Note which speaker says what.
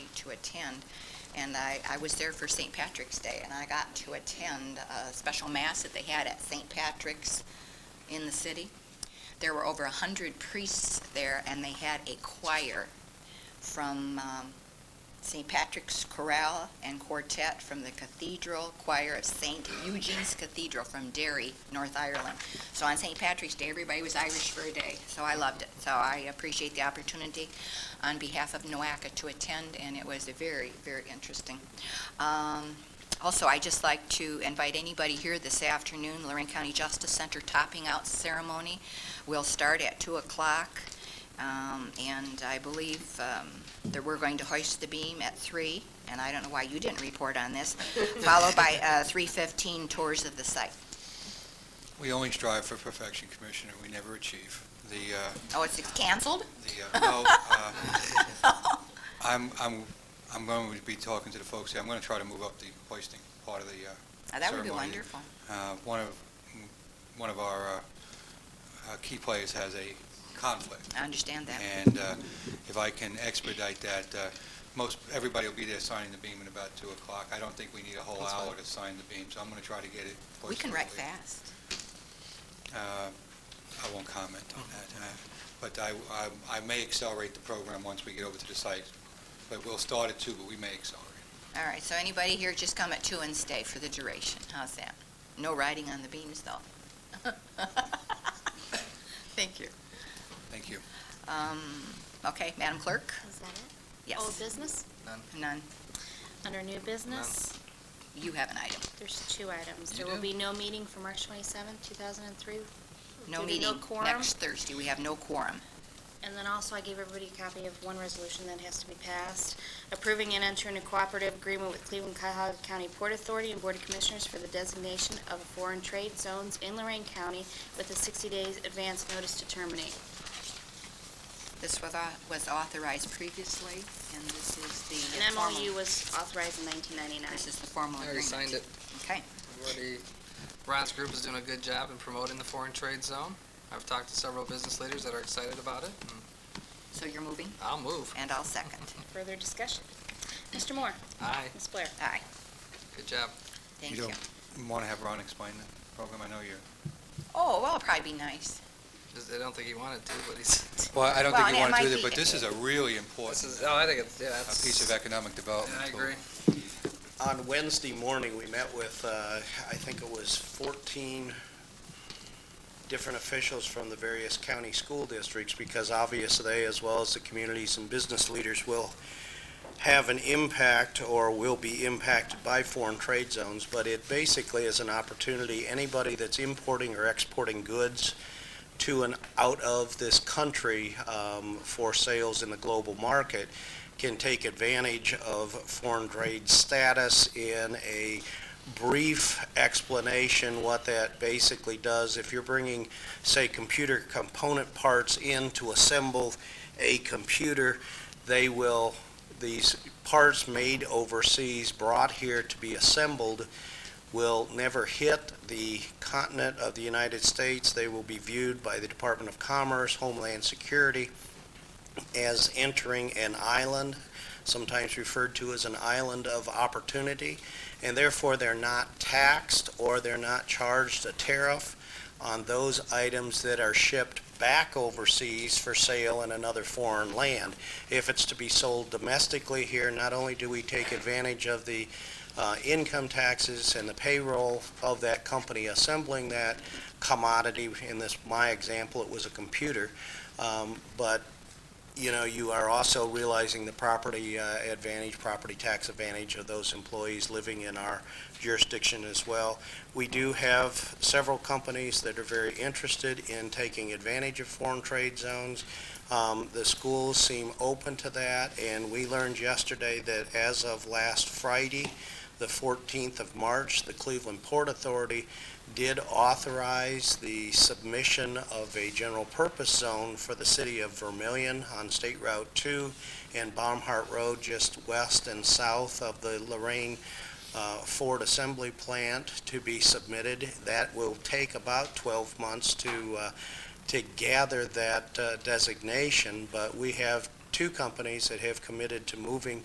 Speaker 1: to attend. And I, I was there for St. Patrick's Day, and I got to attend a special mass that they had at St. Patrick's in the city. There were over a hundred priests there, and they had a choir from um, St. Patrick's Chorale and Quartet from the Cathedral Choir of St. Eugene's Cathedral from Derry, North Ireland. So on St. Patrick's Day, everybody was Irish for a day, so I loved it. So I appreciate the opportunity on behalf of NOACA to attend, and it was a very, very interesting. Um, Also, I'd just like to invite anybody here this afternoon, Lorraine County Justice Center Topping Out Ceremony will start at 2 o'clock, um, and I believe um, that we're going to hoist the beam at 3, and I don't know why you didn't report on this, followed by uh, 3:15 tours of the site.
Speaker 2: We only strive for perfection, Commissioner, we never achieve. The, uh,
Speaker 1: Oh, it's canceled?
Speaker 2: the, uh, no, uh, I'm, I'm, I'm going to be talking to the folks here, I'm going to try to move up the hoisting part of the, uh,
Speaker 1: Oh, That would be
Speaker 2: Ceremony.
Speaker 1: wonderful.
Speaker 2: uh, one of, one of our uh, uh, key players has a conflict,
Speaker 1: I understand that.
Speaker 2: and uh, if I can expedite that, uh, most, everybody will be there signing the beam at about 2 o'clock. I don't think we need a whole
Speaker 3: That's fine.
Speaker 2: hour to sign the beam, so I'm going to try to get it.
Speaker 1: We can write
Speaker 2: hoisted early.
Speaker 1: fast.
Speaker 2: Uh, I won't comment on that, uh, but I, I- I may accelerate the program once we get over to the site, but we'll start at two, but we may accelerate.
Speaker 1: All right, so anybody here, just come at two and stay for the duration. How's that? No riding on the beams, though. Thank you.
Speaker 2: Thank you.
Speaker 1: Um, Okay, Madam Clerk?
Speaker 4: Is that it? Old
Speaker 1: Yes.
Speaker 4: business?
Speaker 1: None.
Speaker 4: Under new business,
Speaker 1: You have an item.
Speaker 4: there's two items.
Speaker 3: You
Speaker 4: There will
Speaker 3: do?
Speaker 4: be no meeting for March twenty-seventh, two thousand and three.
Speaker 1: No
Speaker 4: Due to
Speaker 1: meeting
Speaker 4: no quorum.
Speaker 1: next Thursday. We have no quorum.
Speaker 4: And then also, I gave everybody a copy of one resolution that has to be passed, approving and entering a cooperative agreement with Cleveland Cuyahoga County Port Authority and Board of Commissioners for the designation of foreign trade zones in Lorraine County with a sixty days advance notice to terminate.
Speaker 1: This was au- was authorized previously, and this is the
Speaker 4: An
Speaker 1: formal...
Speaker 4: MOU was authorized in nineteen ninety-nine.
Speaker 1: This is the formal
Speaker 3: I
Speaker 1: agreement.
Speaker 3: already signed it.
Speaker 1: Okay.
Speaker 3: Already, Ron's group is doing a good job in promoting the foreign trade zone. I've talked to several business leaders that are excited about it. and
Speaker 1: So you're moving,
Speaker 3: I'll move.
Speaker 1: and I'll second.
Speaker 4: Further discussion? Mr. Moore?
Speaker 3: Aye,
Speaker 4: Ms. Blair?
Speaker 1: Aye.
Speaker 3: good job.
Speaker 1: Thank
Speaker 2: You
Speaker 1: you.
Speaker 2: don't- Want to have Ron explain the program? I know you're...
Speaker 1: Oh, well, it'll probably be nice.
Speaker 3: Just- I don't think he wanted to, but he's,
Speaker 2: Well, I don't
Speaker 1: Well,
Speaker 2: think
Speaker 1: and it
Speaker 2: you want to do
Speaker 1: might
Speaker 2: that,
Speaker 1: be-
Speaker 2: but this is a really
Speaker 3: this
Speaker 2: important
Speaker 3: is, oh, I think it's, yeah,
Speaker 2: uh,
Speaker 3: that's.
Speaker 2: piece of economic development.
Speaker 3: I
Speaker 2: tool.
Speaker 3: agree.
Speaker 5: On Wednesday morning, we met with, uh, I think it was 14 different officials from the various county school districts, because obviously they, as well as the communities and business leaders, will have an impact or will be impacted by foreign trade zones, but it basically is an opportunity, anybody that's importing or exporting goods to and out of this country um, for sales in the global market, can take advantage of foreign trade status in a brief explanation what that basically does. If you're bringing, say, computer component parts in to assemble a computer, they will, these parts made overseas, brought here to be assembled, will never hit the continent of the United States. They will be viewed by the Department of Commerce, Homeland Security, as entering an island, sometimes referred to as an island of opportunity, and therefore they're not taxed or they're not charged a tariff on those items that are shipped back overseas for sale in another foreign land. If it's to be sold domestically here, not only do we take advantage of the uh, income taxes and the payroll of that company assembling that commodity, in this, my example, it was a computer, um, but you know, you are also realizing the property uh, advantage, property tax advantage of those employees living in our jurisdiction as well. We do have several companies that are very interested in taking advantage of foreign trade zones. Um, The schools seem open to that, and we learned yesterday that as of last Friday, the 14th of March, the Cleveland Port Authority did authorize the submission of a general purpose zone for the city of Vermillion on State Route 2 and Baumhart Road, just west and south of the Lorraine uh, Ford Assembly Plant to be submitted. That will take about 12 months to, uh, to gather that uh, designation, but we have two companies that have committed to moving